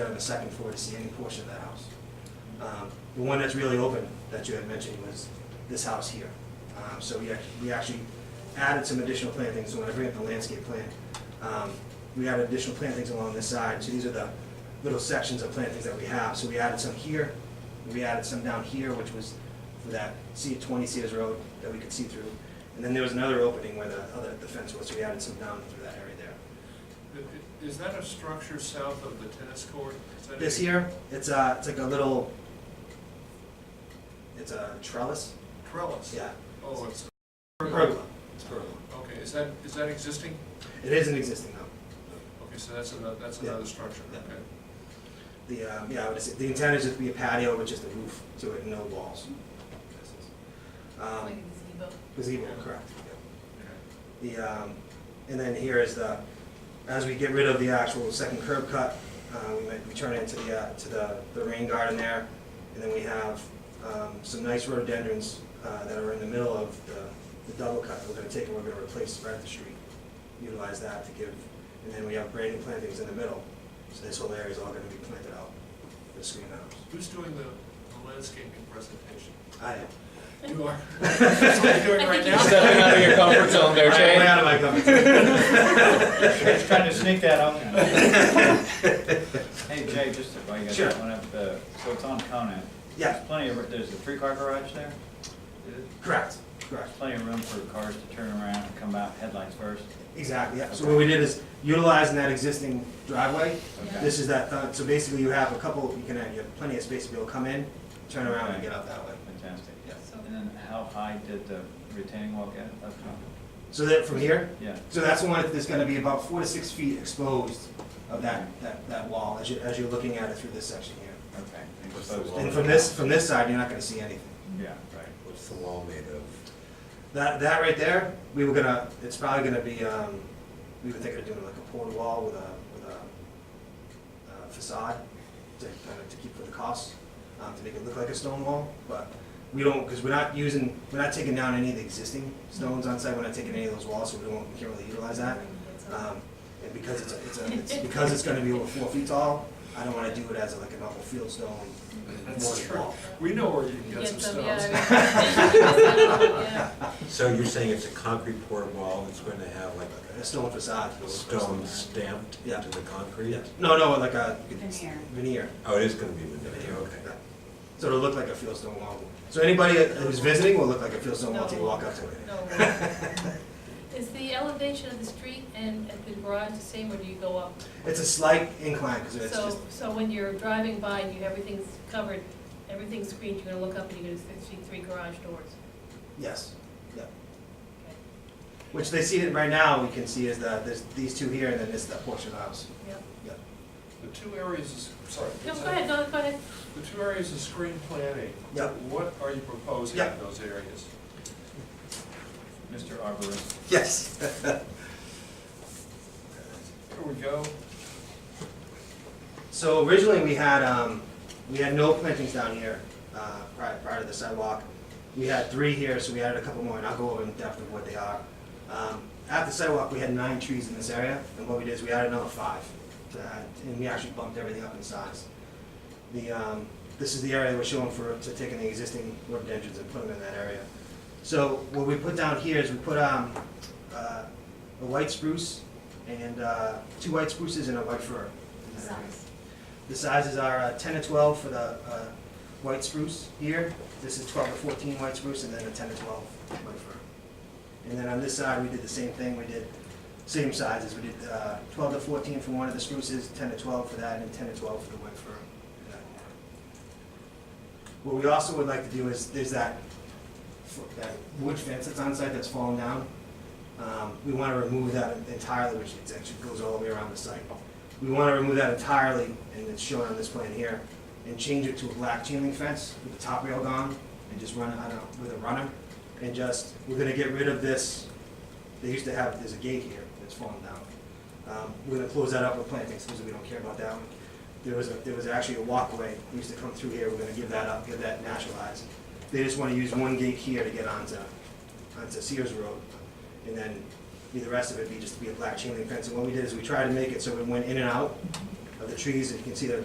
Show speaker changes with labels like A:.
A: on the second floor to see any portion of the house. Um, The one that's really open that you had mentioned was this house here. Um, So we act- we actually added some additional plantings, so when I bring up the landscape plan, um, we added additional plantings along this side, so these are the little sections of plantings that we have. So we added some here, we added some down here, which was for that C twenty Sears Road that we could see through. And then there was another opening where the other, the fence was, so we added some down through that area there.
B: I- Is that a structure south of the tennis court? Is that
A: This
B: a
A: year, it's a, it's like a little, it's a trellis,
B: Trellis?
A: yeah.
B: Oh, it's,
A: Pergola. It's pergola.
B: okay, is that, is that existing?
A: It isn't existing though.
B: Okay, so that's another, that's
A: Yeah.
B: another structure,
A: Yeah.
B: okay.
A: The, um, yeah, I would say, the intent is just to be a patio with just a roof to it, no walls. Um,
C: Like a gazebo.
A: gazebo, correct, yeah.
B: okay.
A: The, um, and then here is the, as we get rid of the actual second curb cut, uh, we might, we turn it into the, uh, to the, the rain garden there. And then we have, um, some nice rhododendrons, uh, that are in the middle of the, the double cut that we're gonna take and we're gonna replace right at the street. Utilize that to give, and then we have grading plantings in the middle, so this whole area is all gonna be planted out with screen house.
B: Who's doing the the landscaping presentation?
A: I am.
B: You are? That's what you're doing
C: I
B: right
C: think you
B: now?
C: should-
D: Stepping out of your comfort zone there,
A: I'm way
D: Jay.
A: out of my comfort zone.
E: Just trying to sneak that out. Hey Jay, just if I
A: Sure.
E: get one up, the, so it's on Conant.
A: Yeah.
E: There's plenty of, there's a three-car garage there.
A: Correct, correct.
E: There's plenty of room for cars to turn around and come out headlights first.
A: Exactly, yeah. So what we did is utilizing that existing driveway.
E: Okay.
A: This is that, uh, so basically you have a couple, you can, have- you have plenty of space to be able to come in, turn around and get out that way.
E: Fantastic.
A: Yeah.
E: And then how high did the retaining wall get up top?
A: So that, from here,
E: Yeah,
A: so that's one, that's gonna be about four to six feet exposed of that, that, that wall as you, as you're looking at it through this section here.
E: okay. And
F: What's
E: so-
F: the wall?
A: And from this, from this side, you're not gonna see anything.
E: Yeah, right.
F: What's the wall made of?
A: That, that right there, we were gonna, it's probably gonna be, um, we were thinking of doing like a porta wall with a, with a uh, facade to, kind of to keep for the cost, um, to make it look like a stone wall, but we don't, because we're not using, we're not taking down any of the existing stones on site, we're not taking any of those walls, so we don't, we can't really utilize that. Um, and because it's, a- it's, a- it's, because it's gonna be over four feet tall, I don't wanna do it as like a normal field stone
B: That's
A: mortar
B: true.
A: wall.
B: We know where you can
C: Get
B: get some
C: some,
B: stones.
C: yeah.
F: So you're saying it's a concrete pour wall that's going to have like
A: A stone facade.
F: a stone stamped
A: Yeah.
F: into the concrete?
A: Yeah, no, no, like a.
G: Veneer.
A: Veneer.
F: Oh, it is going to be veneer, okay.
A: So it'll look like a fieldstone wall. So anybody who's visiting will look like a fieldstone wall till you walk up to it.
C: No. Is the elevation of the street and at the garage the same, or do you go up?
A: It's a slight incline because it's
C: So,
A: just,
C: so when you're driving by and you, everything's covered, everything's screened, you're gonna look up and you're gonna see three garage doors.
A: yes, yeah.
C: Okay.
A: Which they see it right now, we can see is the, there's these two here and then this, that portion of the house.
C: Yeah.
A: Yeah.
B: The two areas, is sorry.
C: No, go ahead, no, go ahead.
B: The two areas of screen planting.
A: Yeah.
B: What are you proposing
A: Yeah.
B: in those areas?
E: Mr. Arborist,
A: Yes.
B: Here we go.
A: So originally, we had, um, we had no plantings down here, uh, prior, prior to the sidewalk. We had three here, so we added a couple more, and I'll go over in depth of what they are. Um, at the sidewalk, we had nine trees in this area, and what we did is we added another five to add, and we actually bumped everything up in size. The, um, this is the area we're showing for, to taking the existing rhododendrons and put them in that area. So what we put down here is we put, um, uh, a white spruce and, uh, two white spruces and a white fir. in that area.
G: Size.
A: The sizes are uh, 10 to 12 for the uh, white spruce here. This is 12 to 14 white spruce, and then a 10 to 12 white fir. And then on this side, we did the same thing. We did same sizes. We did uh, 12 to 14 for one of the spruces, 10 to 12 for that, and 10 to 12 for the white fir. in that corner. What we also would like to do is, there's that, that wood fence that's on site that's fallen down. Um, We want to remove that entirely, which it actually goes all the way around the site. We want to remove that entirely, and it's shown on this plan here, and change it to a black chain link fence with the top rail gone, and just run, I don't know, with a runner, and just, we're gonna get rid of this, they used to have, there's a gate here that's fallen down. Um, We're gonna close that up with plantings, because we don't care about that one. There was, a there was actually a walkway, that used to come through here, we're gonna give that up, give that naturalized. They just wanna use one gate here to get onto, onto Sears Road, and then be the rest of it be just to be a black chain link fence. And what we did is we tried to make it so it went in and out of the trees, and you can see that